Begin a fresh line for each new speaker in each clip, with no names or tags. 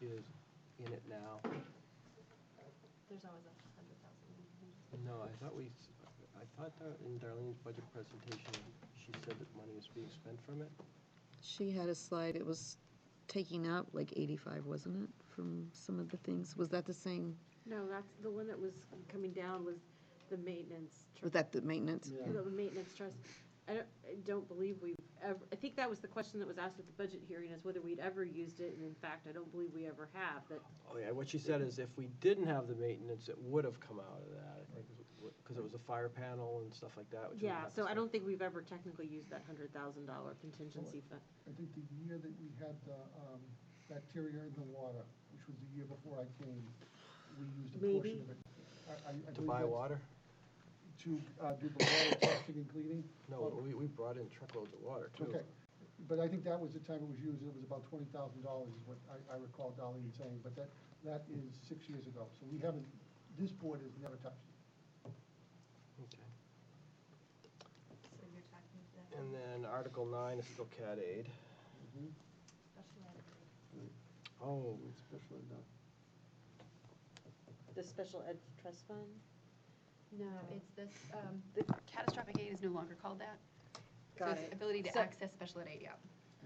is in it now.
There's always a hundred thousand.
No, I thought we, s- I thought that in Darlene's budget presentation, she said that money was being spent from it.
She had a slide, it was taking out like 85, wasn't it, from some of the things? Was that the same,
No, that's, the one that was coming down was the maintenance. tr-
was that the maintenance?
The maintenance trust. I don't, I don't believe we've ever, I think that was the question that was asked at the budget hearing is whether we'd ever used it, and in fact, I don't believe we ever have, that
Oh, yeah, what she said is if we didn't have the maintenance, it would have come out of that, I think, because it was a fire panel and stuff like that, which. we
Yeah,
have to
so I
spend.
don't think we've ever technically used that hundred thousand dollar contingency fund.
I think the year that we had the um, bacteria in the water, which was the year before I came, we used a portion
Maybe.
of it. I- I- I
To
believe
buy
that's
water?
To uh, do the water testing and cleaning.
No, we, we brought in truckloads of water, too.
Okay, but I think that was the time it was used, it was about twenty thousand dollars is what I, I recall Darlene saying, but that, that is six years ago, so we haven't, this board has never touched it.
Okay.
So you're talking that
And then Article nine is still CAD aid. Mm-hmm.
special ed.
Oh,
The special ed trust fund?
No, it's this, um, the catastrophic aid is no longer called that. So
Got
it's
it.
Ability to
So-
access special ed aid, yeah.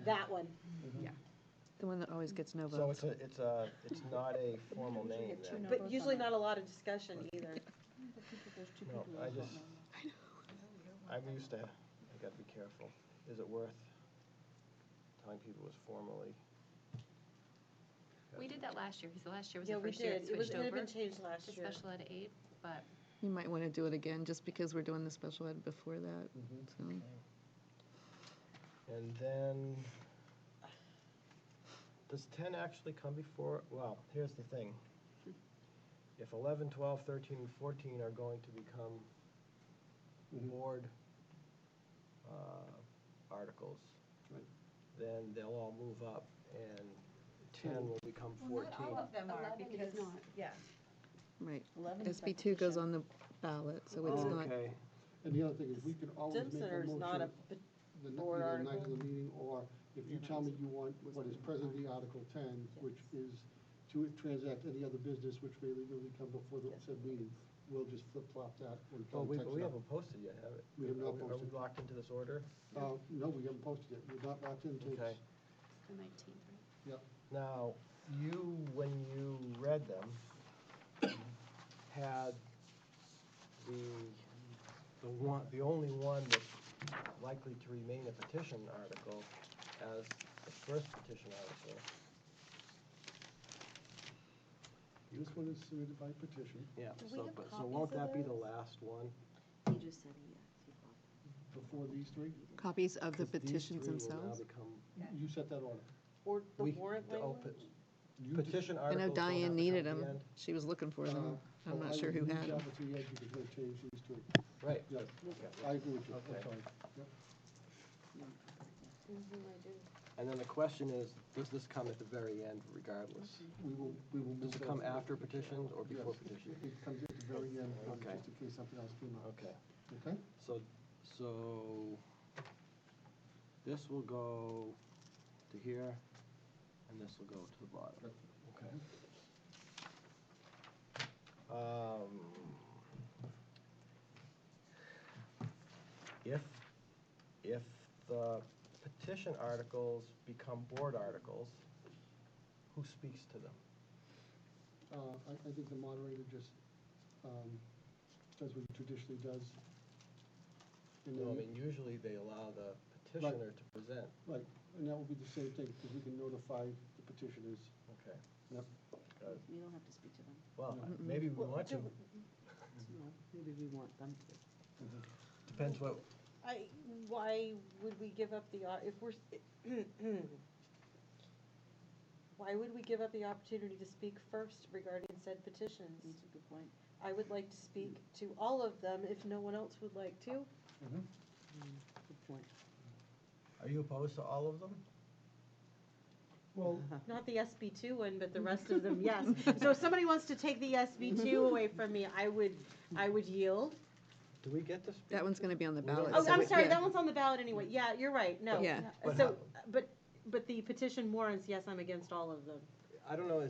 That one.
The one that always gets no
so
votes.
it's a, it's a, it's not a formal name then.
But usually not a lot of discussion either.
No, I just, I'm used to, I gotta be careful. Is it worth telling people it was formally?
We did that last year, because the last year was
Yeah,
the
we
first year
did.
it
It was,
switched
it had
over
been
to
changed last year.
special ed aid, but
You might want to do it again, just because we're doing the special ed before that,
Mm-hmm.
so.
And then, does ten actually come before, well, here's the thing. If eleven, twelve, thirteen, and fourteen are going to become board uh, articles, then they'll all move up and ten will become fourteen.
them
are, because-
Yeah.
Right.
Eleven is
SB two goes
repetition.
on the ballot, so it's
Oh,
not,
Okay,
And the other thing is, we can always make a
Stimson is
motion
not a,
the n-
board
either night of
article.
the meeting, or if you tell me you want what is presently Article ten, which is to transact any other business which may legally come before the said meeting, we'll just flip-flop that when
well,
Tom
Oh, we,
texts
we
up.
haven't posted yet, have it?
We have not
Are we
posted.
locked into this order?
Uh, no, we haven't posted it, we're not locked into it.
Okay.
the nineteenth, right?
Yep.
Now, you, when you read them, had the, the one, the only one that's likely to remain a petition article as the first petition article.
This one is submitted by petition,
Yeah,
Do we
so,
have
but, so
copies
won't
of
that be the
those?
last one?
he just said he, uh,
before these three,
copies of the
'Cause these
petitions
three will now
themselves?
become-
Yeah.
you set that order.
Or the
we-
warrant
the open-
language?
You just-
Petition
I
articles.
know
don't have to
Diane
come
needed
at the
them,
end. Uh-huh. Oh,
she was looking for them,
Uh,
I'm
I
not sure
would
who
reach
had them.
out to you, because we'll change these two.
Right.
Yeah, I agree with you,
Okay.
I'm sorry. Yep.
And then the question is, does this come at the very end regardless?
We will, we will move
Does it
that
come
forward.
after petitions or before
Yes,
petitions?
It comes at the very end, um,
Okay.
just in case something else came up.
Okay.
Okay?
So, so this will go to here, and this will go to the bottom. Okay. Um, If, if the petition articles become board articles, who speaks to them?
Uh, I, I think the moderator just, um, does what he traditionally does. And
No, I
then,
mean, usually they allow the petitioner to present.
right, and that will be the same thing, because we can notify the petitioners.
Okay.
Yep.
Got it.
You don't have to speak to them.
Well, maybe we want to.
No, Maybe we want them to.
Depends what,
I, why would we give up the, op- if we're, why would we give up the opportunity to speak first regarding said petitions?
That's a good point.
I would like to speak to all of them if no one else would like to.
Uh-huh. Good point.
are you opposed to all of them?
Well,
Not the SB two one, but the rest of them, yes. So if somebody wants to take the SB two away from me, I would, I would yield.
Do we get to speak?
That one's gonna be on the
We don't
ballot.
Oh,
So
I'm
it-
sorry,
yeah.
that one's on the ballot anyway. Yeah, you're right, no.
Yeah.
But
So,
how-
but, but the petition warrants, yes, I'm against all of them.
I don't know,